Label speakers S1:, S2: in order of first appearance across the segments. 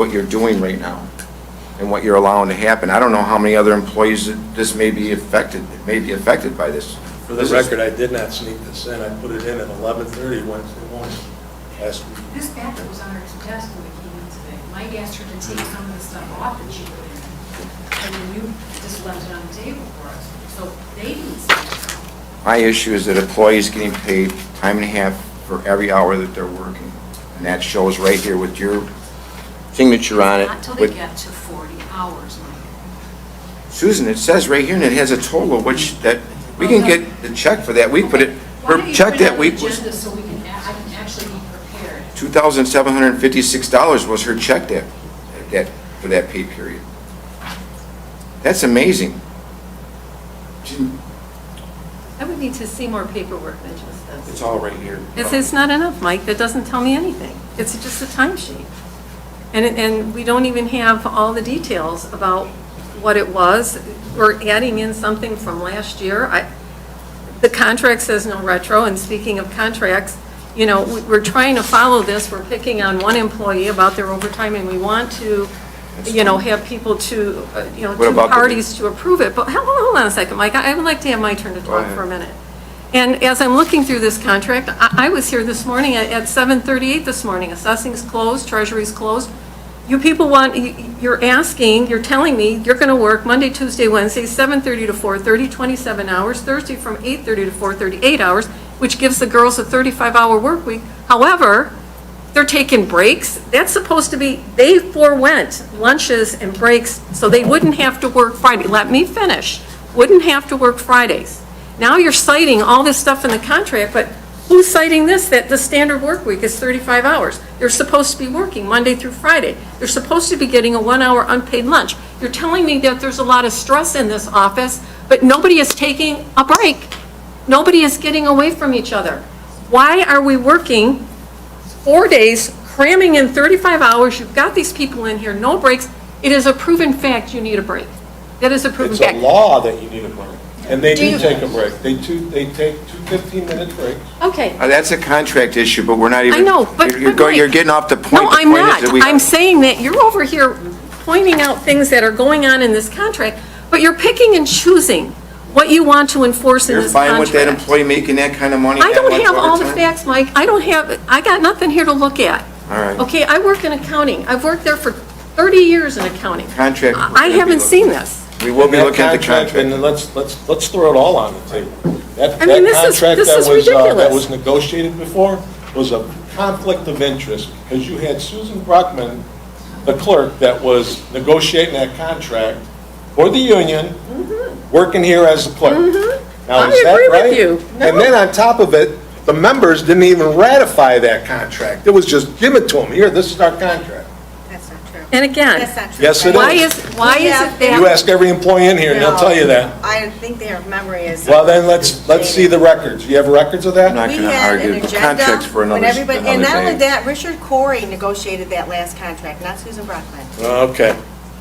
S1: what you're doing right now and what you're allowing to happen. I don't know how many other employees that this may be affected, may be affected by this.
S2: For the record, I did not sneak this in. I put it in at 11:30 Wednesday morning last week.
S3: This packet was on her desk when we came in today. Mike asked her to take some of the stuff off that she put in, and then you just left it on the table for us. So they didn't see it.
S1: My issue is that employees getting paid time and a half for every hour that they're working. And that shows right here with your signature on it.
S3: Not till they
S1: with-
S3: get to 40 hours, Mike.
S1: Susan, it says right here, and it has a total of which, that, we
S3: Oh,
S1: can get the check for that. We put it, her check that week
S3: Why don't you put it on the
S1: was
S3: agenda so we can, a- I can actually be prepared?
S1: $2,756 was her check that, that, for that pay period. That's amazing. She-
S4: I would need to see more paperwork than just
S1: It's
S4: this.
S1: all right here.
S4: It's, it's not enough, Mike, that doesn't tell me anything. It's just a timesheet. And, it- and we don't even have all the details about what it was. We're adding in something from last year. I, the contract says no retro, and speaking of contracts, you know, we- we're trying to follow this, we're picking on one employee about their overtime, and we want to, you know, have people to, uh, you know,
S1: What
S4: two
S1: about the-
S4: parties to approve it, but hold on hold on a second, Mike, I I would like to have my turn to
S1: Go
S4: talk
S1: ahead.
S4: for a minute. And as I'm looking through this contract, I I was here this morning at at 7:38 this morning, assessing's closed, treasury's closed. You people want, you- you're asking, you're telling me you're going to work Monday, Tuesday, Wednesday, 7:30 to 4:30, 27 hours, Thursday from 8:30 to 4:38 hours, which gives the girls a 35-hour work week. However, they're taking breaks. That's supposed to be, they forewent lunches and breaks so they wouldn't have to work Friday. Let me finish. Wouldn't have to work Fridays. Now you're citing all this stuff in the contract, but who's citing this, that the standard work week is 35 hours? They're supposed to be working Monday through Friday. They're supposed to be getting a one-hour unpaid lunch. You're telling me that there's a lot of stress in this office, but nobody is taking a break. Nobody is getting away from each other. Why are we working four days, cramming in 35 hours, you've got these people in here, no breaks. It is a proven fact you need a break. That is a proven
S2: It's a
S4: fact.
S2: law that you need a break. And they
S4: Do
S2: do
S4: you-
S2: take a break. They two, they take two 15-minute breaks.
S4: Okay.
S1: Uh, That's a contract issue, but we're not even.
S4: I know, but.
S1: you're- You're
S4: but
S1: going, you're
S4: Mike-
S1: getting off the point.
S4: No,
S1: The
S4: I'm
S1: point is
S4: not.
S1: that we-
S4: I'm saying that you're over here pointing out things that are going on in this contract, but you're picking and choosing what you want to enforce in
S1: You're
S4: this
S1: fine
S4: contract.
S1: with that employee making that kind of money?
S4: I
S1: that
S4: don't
S1: much
S4: have all the
S1: overtime?
S4: facts, Mike. I don't have, I got nothing here to look at.
S1: All right.
S4: Okay, I work in accounting. I've worked there for 30 years in accounting.
S1: Contract, we're
S4: I I
S1: gonna be
S4: haven't
S1: looking-
S4: seen this.
S1: We will be
S2: That
S1: looking at the contract.
S2: And let's, let's, let's throw it all on the table. That
S4: I
S2: that
S4: mean, this is-
S2: contract
S4: this
S2: that
S4: is
S2: was, uh, That
S4: ridiculous.
S2: was negotiated before was a conflict of interest, because you had Susan Bruckman, the clerk, that was negotiating that contract for the union,
S4: Mm-hmm.
S2: working here as a clerk. Now,
S4: I
S2: is that
S4: agree with
S2: right?
S4: you.
S2: And
S4: No.
S2: then on top of it, the members didn't even ratify that contract. It was just, give it to them, here, this is our contract.
S5: That's not true.
S4: And again,
S5: That's not true.
S2: Yes, it
S4: why
S2: is.
S4: is, why is it
S2: You
S4: that,
S2: ask every employee in here, and they'll tell you that.
S5: I think their memory is.
S2: Well, then, let's, let's see the records. You have records of that?
S1: No. I'm not
S5: We
S1: gonna
S5: had
S1: argue.
S5: an
S1: The
S5: agenda
S1: contract's for another-
S5: when everybody- And
S1: another
S5: not only
S1: day.
S5: that, Richard Corey negotiated that last contract, not Susan Brockman.
S2: Okay.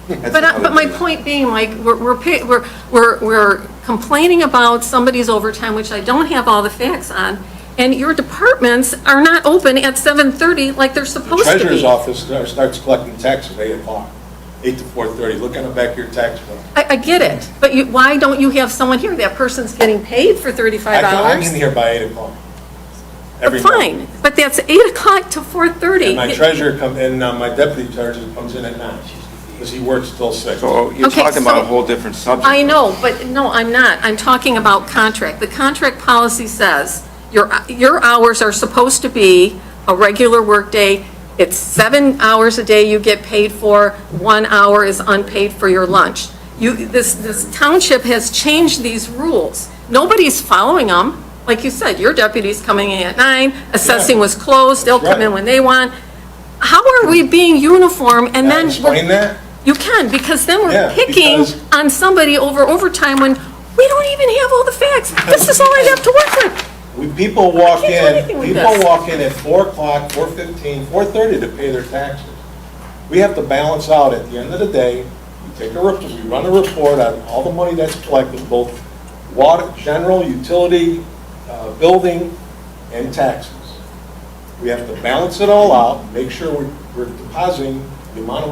S1: That's
S4: but, I-
S1: another
S4: but my
S1: thing.
S4: point being, like, we're, we're, pa- we're- we're, we're complaining about somebody's overtime, which I don't have all the facts on, and your departments are not open at 7:30 like they're
S2: The
S4: supposed to
S2: treasurer's
S4: be.
S2: office start- starts collecting taxes at 8 o'clock, 8 to 4:30. Look on the back of your tax bill.
S4: I, I get it, but you, why don't you have someone here? That person's getting paid for
S2: I
S4: 35
S2: can- I'm in
S4: hours.
S2: here by 8 o'clock. Every morning.
S4: Fine, but that's 8 o'clock to 4:30.
S2: And my treasurer come, and uh, my deputy treasurer comes in at 9, because he works till 6.
S1: So you're
S4: Okay,
S1: talking about a
S4: so-
S1: whole different subject.
S4: I know, but no, I'm not. I'm talking about contract. The contract policy says your, your hours are supposed to be a regular workday. It's seven hours a day you get paid for, one hour is unpaid for your lunch. You, this, this township has changed these rules. Nobody's following them. Like you said, your deputy's coming in at nine, assessing was closed, they'll come in when they want. How are we being uniform and
S2: Can I
S4: then? we're-
S2: explain that?
S4: you can, because then
S2: Yeah,
S4: we're picking
S2: because-
S4: on somebody over overtime when we don't even have all the facts.
S2: Because-
S4: This is all I have to work with.
S2: We, people walk
S4: I can't do
S2: in,
S4: anything with
S2: people
S4: this.
S2: walk in at four o'clock, four fifteen, four thirty to pay their taxes. We have to balance out at the end of the day, we take a, rep- we run a report on all the money that's collected, both water, general, utility, uh, building, and taxes. We have to balance it all out, make sure we're, we're depositing the amount of